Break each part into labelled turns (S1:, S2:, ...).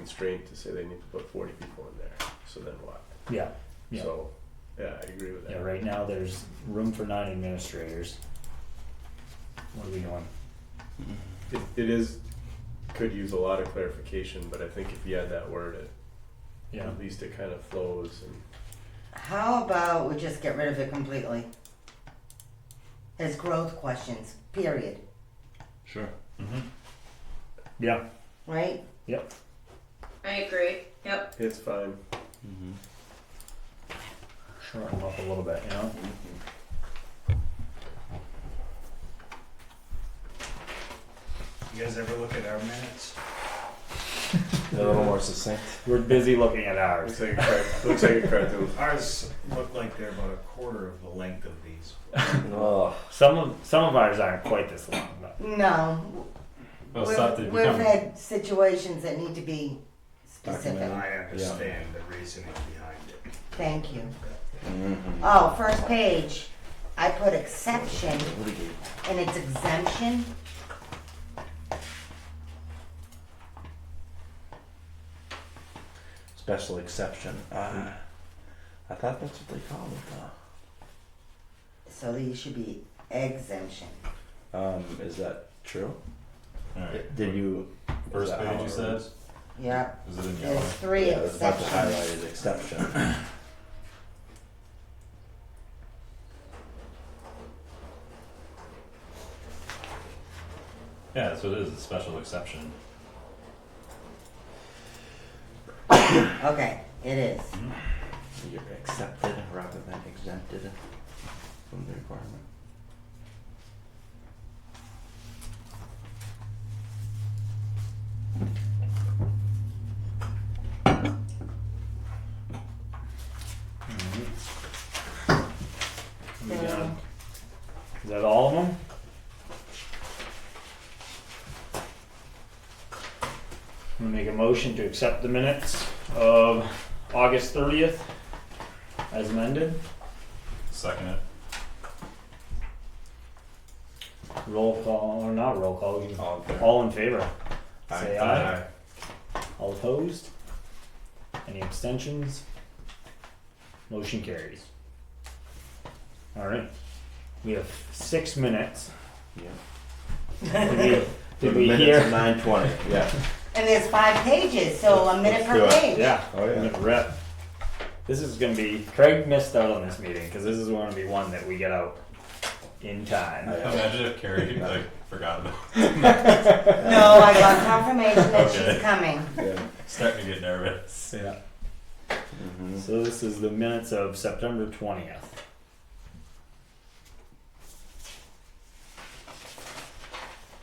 S1: constraint to say they need to put forty people in there, so then what?
S2: Yeah, yeah.
S1: So, yeah, I agree with that.
S2: Yeah, right now there's room for nine administrators. What are we doing?
S1: It, it is, could use a lot of clarification, but I think if you add that word, it,
S2: Yeah,
S1: at least it kind of flows and
S3: How about we just get rid of it completely? As growth questions, period.
S4: Sure.
S2: yeah,
S3: Right?
S5: I agree. Yep.
S1: it's fine.
S4: Mm-hmm.
S2: shorten them up a little bit, you know?
S6: You guys ever look at our minutes?
S7: They're a little more succinct.
S2: We're busy looking at ours.
S1: Looks like a card, looks like a cartoon.
S6: Ours look like they're about a quarter of the length of these.
S7: Ugh.
S2: Some of, some of ours aren't quite this long, but
S3: No.
S4: Well,
S3: we've,
S4: stop the
S3: we've had situations that need to be specific.
S6: I understand the reasoning behind it.
S3: Thank you.
S7: Mm-hmm.
S3: Oh, first page. I put exception
S7: Litigate.
S3: and it's exemption.
S7: Special exception. Uh, I thought that's what they called it
S3: So these should be exemption.
S7: though. Um, is that true?
S4: All right.
S7: Did you? is
S4: First
S7: that how
S4: page you
S7: it
S4: said.
S7: reads?
S3: Yep.
S4: Is it in yellow?
S3: There's three
S7: Yeah, that's about the
S3: exceptions.
S7: highlighted exception.
S4: Yeah, that's what it is. It's a special exception.
S3: Okay, it is.
S7: You're accepted rather than exempted from the requirement.
S2: we
S3: So-
S2: done? Is that all of them? I'm gonna make a motion to accept the minutes of August thirtieth as amended.
S4: Second it.
S2: Roll call, or not roll call, you-
S7: All in favor?
S2: all in favor? Say aye.
S4: Aye.
S2: All opposed? Any abstentions? Motion carries. All right, we have six minutes.
S7: Yeah.
S2: Did we,
S7: The
S2: did we
S7: minutes
S2: hear?
S7: Nine twenty, yeah.
S3: And there's five pages, so a minute per
S7: Let's do it.
S3: page.
S2: Yeah.
S7: Oh, yeah.
S2: I'm gonna rip. This is gonna be, Craig missed out on this meeting, cause this is gonna be one that we get out in time.
S4: Imagine if Carrie like forgot about.
S3: No, I got confirmation that
S4: Okay.
S3: she's coming.
S7: Yeah.
S4: Starting to get nervous.
S2: Yeah.
S7: Mm-hmm.
S2: So this is the minutes of September twentieth.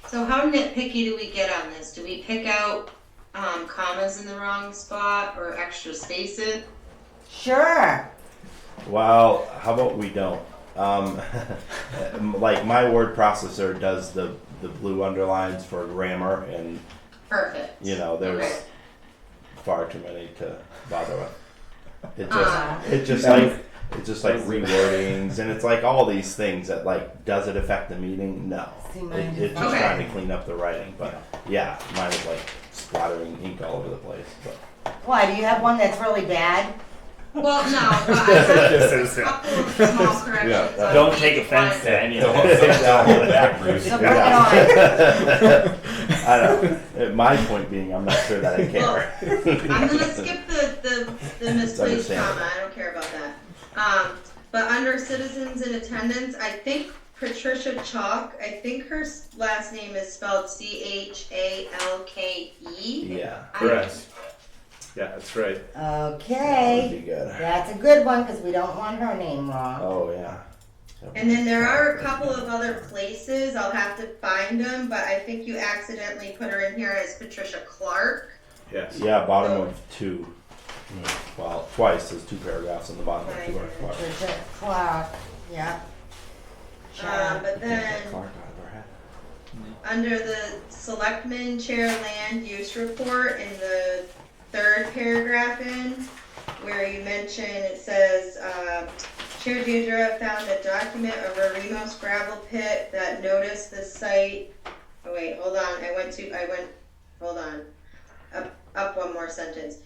S5: So how nitpicky do we get on this? Do we pick out um, commas in the wrong spot or extra space it?
S3: Sure.
S7: Well, how about we don't? Um, like my word processor does the the blue underlines for grammar, and
S5: Perfect.
S7: you know there's
S5: Okay.
S7: far too many to bother with. It
S5: Ah.
S7: just it just like it's just like rewordings, and it's like all these things that like does it affect the meaning? No,
S3: See,
S7: it,
S3: mine is
S7: it's just
S5: Okay.
S7: trying to clean up the writing. But yeah, mine is like splattering ink all over the place. But
S3: Why, do you have one that's really bad?
S5: Well, no, but I have
S2: This is
S5: a
S2: it.
S5: couple of small corrections. on
S2: Don't
S5: each
S2: take offense
S5: one.
S2: to any of
S7: Don't-
S2: this.
S7: don't-
S4: Back, Bruce.
S3: So bring
S7: Yeah.
S3: it on.
S7: I don't. My point being, I'm not sure that I care.
S5: I'm gonna skip the, the, the misplaced
S7: understandable.
S5: comma, I don't care about that. Um, but under citizens in attendance, I think Patricia Chalk, I think her s- last name is spelled C H A L K E.
S7: Yeah.
S5: I-
S1: Correct. Yeah, that's right.
S7: That
S3: Okay.
S7: would be good.
S3: That's a good one because we don't want her name wrong.
S7: Oh yeah.
S5: And then there are a couple of other places, I'll have to find them, but I think you accidentally put her in here as Patricia Clark.
S1: Yes.
S7: Yeah, bottom of two. Well, twice. There's two paragraphs on the bottom of two. Are Clark.
S3: Patricia Clark. Yep.
S5: Um,
S3: Sure.
S5: but then,
S7: Clark out of her head.
S5: under the selectmen chair land use report in the third paragraph in, where you mention, it says, uh, Chair Dudra found a document of a Remos gravel pit that noticed the site. Oh wait, hold on, I went to, I went, hold on. A, up one more sentence.